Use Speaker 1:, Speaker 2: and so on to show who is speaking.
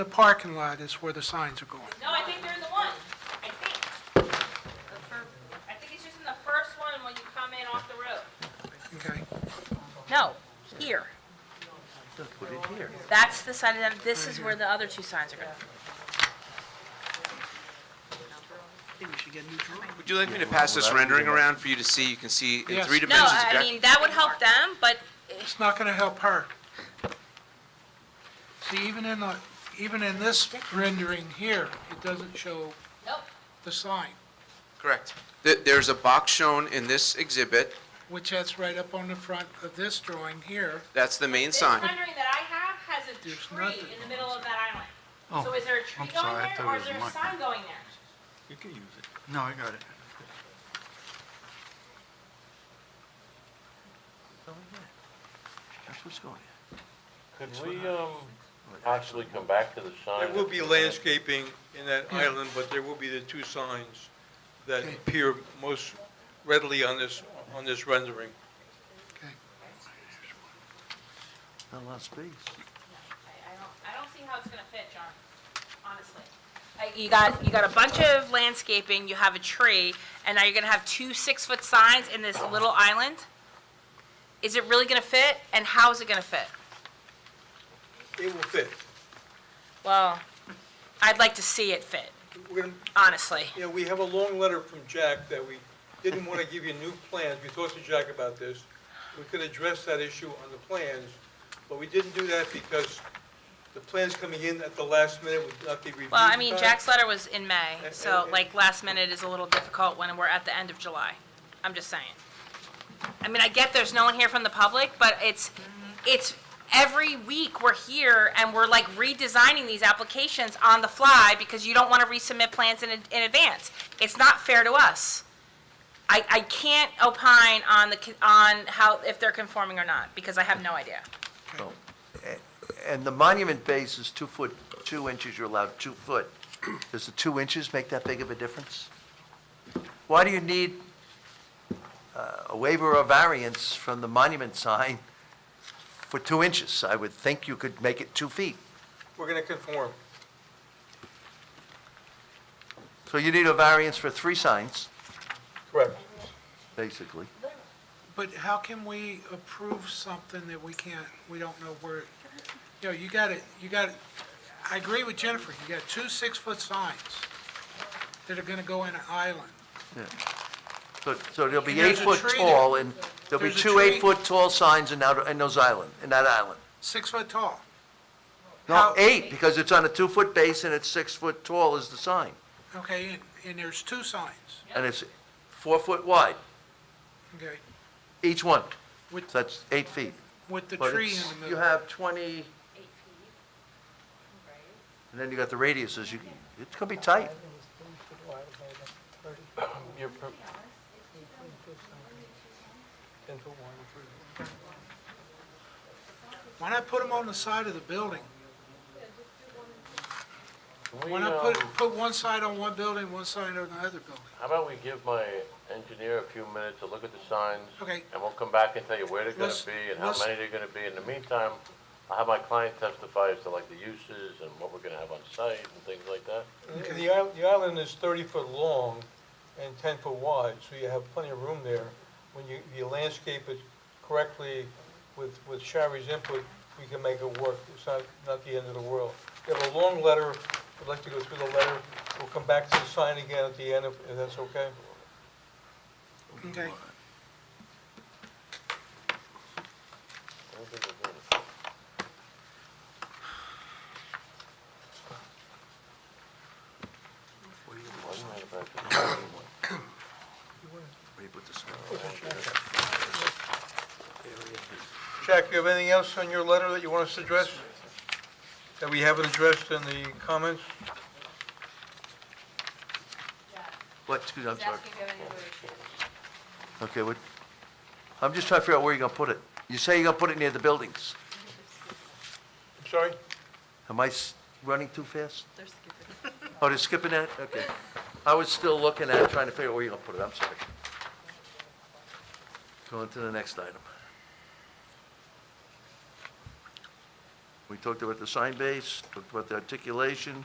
Speaker 1: The parking lot is where the signs are going.
Speaker 2: No, I think they're in the one, I think. The fir- I think it's just in the first one when you come in off the road.
Speaker 1: Okay,
Speaker 2: No, here. That's the side of them, this is where the other two signs are going.
Speaker 3: Would you like me to pass this rendering around for you to see? You can see in
Speaker 1: Yes.
Speaker 3: three
Speaker 2: No,
Speaker 3: dimensions
Speaker 2: I
Speaker 3: exactly.
Speaker 2: mean, that would help them, but
Speaker 1: it's not gonna help her. See, even in the, even in this rendering here, it doesn't show
Speaker 2: Nope.
Speaker 1: the sign,
Speaker 3: Correct. Th- There's a box shown in this exhibit.
Speaker 1: which that's right up on the front of this drawing here.
Speaker 3: That's the main
Speaker 2: this
Speaker 3: sign.
Speaker 2: rendering that I have has a
Speaker 1: There's
Speaker 2: tree
Speaker 1: nothing.
Speaker 2: in the middle of that island. So is there a tree
Speaker 4: Oh, I'm sorry,
Speaker 2: going
Speaker 4: I
Speaker 2: there
Speaker 4: thought it
Speaker 2: or is
Speaker 4: was
Speaker 2: there a
Speaker 4: mine.
Speaker 2: sign going there?
Speaker 5: You can use it.
Speaker 4: No, I got it.
Speaker 5: That's what's going in.
Speaker 6: Could we, um, actually come back to the sign?
Speaker 7: There will be landscaping in that island, but there will be the two signs that
Speaker 1: Okay.
Speaker 7: appear most readily on this, on this rendering.
Speaker 1: Okay.
Speaker 5: Not a lot of space.
Speaker 2: I I don't, I don't see how it's gonna fit, John, honestly. Like, You got, you got a bunch of landscaping, you have a tree, and now you're gonna have two six-foot signs in this little island? Is it really gonna fit, and how is it gonna fit?
Speaker 7: It will fit.
Speaker 2: Well, I'd like to see it fit,
Speaker 7: We're gonna,
Speaker 2: honestly.
Speaker 7: you know, we have a long letter from Jack that we didn't want to give you new plans. We talked to Jack about this. We could address that issue on the plans, but we didn't do that because the plans coming in at the last minute would not be reviewed.
Speaker 2: Well, I
Speaker 7: in
Speaker 2: mean,
Speaker 7: time.
Speaker 2: Jack's letter was in May,
Speaker 7: And-
Speaker 2: so
Speaker 7: and-
Speaker 2: like last minute is a little difficult when we're at the end of July. I'm just saying. I mean, I get there's no one here from the public, but it's, it's, every week we're here and we're like redesigning these applications on the fly because you don't want to resubmit plans in, ad- in advance. It's not fair to us. I, I can't opine on the, con- on how, if they're conforming or not, because I have no idea.
Speaker 5: And the monument base is two foot, two inches, you're allowed two foot. Does the two inches make that big of a difference? Why do you need uh, a waiver or variance from the monument sign for two inches? I would think you could make it two feet.
Speaker 7: We're going to conform.
Speaker 5: So you need a variance for three signs,
Speaker 7: Correct.
Speaker 5: basically.
Speaker 1: But how can we approve something that we can't, we don't know where, it- you know, you got it, you got, I agree with Jennifer, you got two six-foot signs that are gonna go in an island.
Speaker 5: So, so there'll be
Speaker 1: And there's
Speaker 5: eight
Speaker 1: a
Speaker 5: foot
Speaker 1: tree
Speaker 5: tall, and there'll be
Speaker 1: There's a
Speaker 5: two
Speaker 1: tree.
Speaker 5: eight-foot tall signs in that, in those island, in that island.
Speaker 1: six foot tall.
Speaker 5: No,
Speaker 1: How-
Speaker 5: eight, because it's on a two-foot base and it's six foot tall is the sign,
Speaker 1: Okay, and, and there's two signs,
Speaker 5: and it's four foot wide,
Speaker 1: okay,
Speaker 5: each one,
Speaker 1: with,
Speaker 5: so that's eight feet.
Speaker 1: with the
Speaker 5: But
Speaker 1: tree in
Speaker 5: it's-
Speaker 1: the
Speaker 5: You
Speaker 1: middle.
Speaker 5: have twenty, and then you got the radiuses, you, it's gonna be tight.
Speaker 6: You're pro-
Speaker 1: Why not put them on the side of the building?
Speaker 6: can we,
Speaker 1: Why not put,
Speaker 6: um,
Speaker 1: put one side on one building, one side on the other building?
Speaker 6: How about we give my engineer a few minutes to look at the signs?
Speaker 1: Okay.
Speaker 6: And we'll come back and tell you where they're gonna
Speaker 1: Let's-
Speaker 6: be and how
Speaker 1: let's-
Speaker 6: many they're gonna be. In the meantime, I'll have my client testify as to like the uses and what we're gonna have on site and things like that.
Speaker 7: The the isl- the island is 30 foot long and 10 foot wide, so you have plenty of room there. When you you landscape it correctly with with Shari's input, we can make it work. It's not not the end of the world. We have a long letter, I'd like to go through the letter. We'll come back to the sign again at the end, if if that's okay.
Speaker 1: Okay,
Speaker 6: I don't think we're gonna- Why do you have that?
Speaker 7: Jack, you have anything else on your letter that you want us to address? That we haven't addressed in the comments?
Speaker 5: What, excuse me, I'm sorry. Okay, what, I'm just trying to figure out where you're gonna put it. You say you're gonna put it near the buildings.
Speaker 7: I'm sorry?
Speaker 5: Am I s- running too fast? They're skipping. Oh, they're skipping that? Okay. I was still looking at, it, trying to figure out where you're gonna put it, I'm sorry. Go on to the next item. We talked about the sign base, talked about the articulation,